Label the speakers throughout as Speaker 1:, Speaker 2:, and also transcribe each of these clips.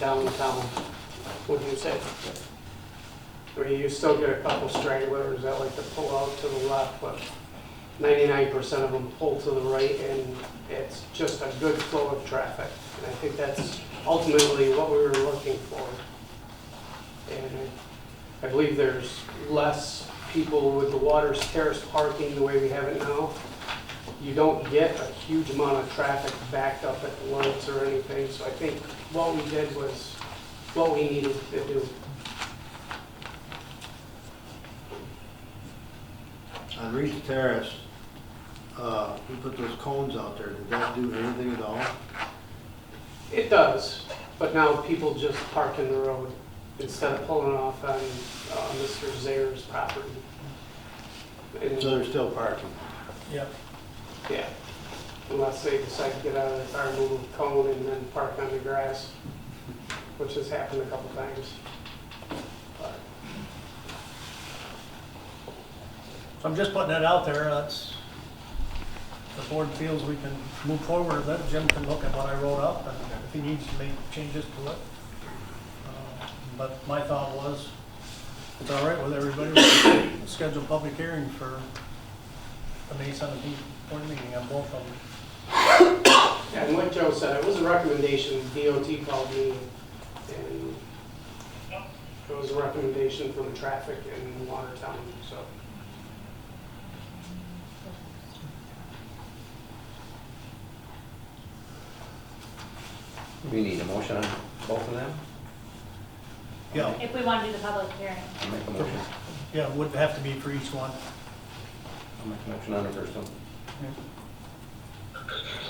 Speaker 1: downtown, wouldn't you say? I mean, you still get a couple stragglers that like to pull out to the left, but ninety-nine percent of them pull to the right, and it's just a good flow of traffic. And I think that's ultimately what we were looking for. And I I believe there's less people with the water's terrace parking the way we have it now. You don't get a huge amount of traffic backed up at the lights or anything, so I think what we did was what we needed to do.
Speaker 2: On Reese Terrace, uh, we put those cones out there, did that do anything at all?
Speaker 1: It does, but now people just park in the road instead of pulling off on uh, Mr. Zaire's property.
Speaker 2: So
Speaker 1: And,
Speaker 2: they're still parking.
Speaker 3: Yep.
Speaker 1: yeah, unless they decide to get out of their car, move a cone and then park on the grass, which has happened a couple times. But-
Speaker 3: So I'm just putting that out there, that's, the board feels we can move forward, let Jim can look at what I wrote up, and if he needs to make changes to it. Uh, But my thought was, it's all right with everybody, we schedule a public hearing for the May seventeenth board meeting on both of them.
Speaker 1: And like Joe said, it was a recommendation, DOT called me, and it was a recommendation from traffic in Watertown, so.
Speaker 4: We need a motion on both of them?
Speaker 3: Yeah,
Speaker 5: If we want to do the public hearing,
Speaker 4: I'll make a motion.
Speaker 3: yeah, would have to be for each one.
Speaker 4: I'll make a motion on the first one.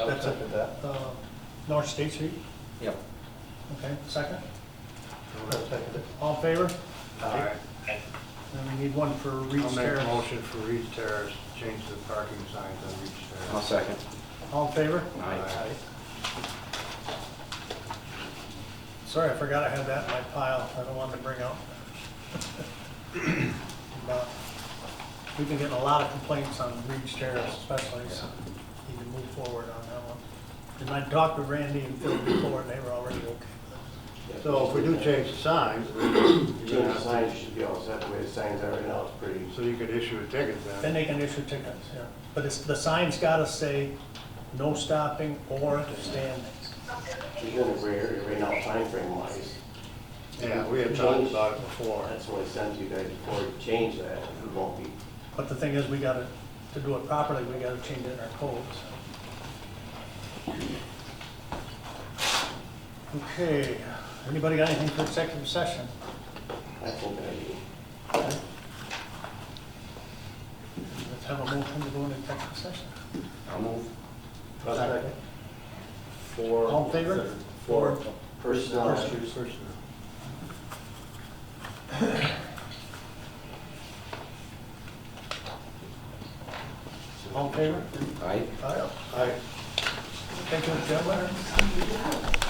Speaker 3: That's it. Uh, North State Street,
Speaker 4: Yep.
Speaker 3: okay, second,
Speaker 2: Second.
Speaker 3: all in favor?
Speaker 2: All right,
Speaker 3: And we need one for
Speaker 2: I'll
Speaker 3: Reed's
Speaker 2: make a
Speaker 3: Terrace.
Speaker 2: motion for Reese Terrace, change the parking signs on Reese
Speaker 4: I'll
Speaker 2: Terrace.
Speaker 4: second.
Speaker 3: All in favor?
Speaker 4: Aye.
Speaker 3: Sorry, I forgot I had that in my pile. I don't want to bring out. But We've been getting a lot of complaints on Reed's Terrace especially, so need to move forward on that one. And I talked to Randy and Phil before, and they were already okay with
Speaker 2: So if we do change the signs,
Speaker 6: You know, the signs should be all set, the way the signs are right now, it's pretty,
Speaker 2: so you could issue a ticket
Speaker 3: it.
Speaker 2: then.
Speaker 3: Then they can issue tickets, yeah. But it's, the sign's gotta say, no stopping or standing.
Speaker 6: it's in a gray area right now, time frame wise.
Speaker 2: Yeah, we had talked about it before.
Speaker 6: That's what I sent you guys before to change that, it won't be.
Speaker 3: But the thing is, we gotta, to do it properly, we gotta change it in our code, so. Okay, anybody got anything for executive session?
Speaker 6: I think I do.
Speaker 3: Let's have a motion to go into executive session.
Speaker 4: I'll move.
Speaker 2: Second.
Speaker 6: For.
Speaker 3: All in favor?
Speaker 6: For personnel issues.
Speaker 3: All in favor?
Speaker 4: Aye.
Speaker 3: Aye.
Speaker 2: Aye.
Speaker 3: Thank you, gentlemen.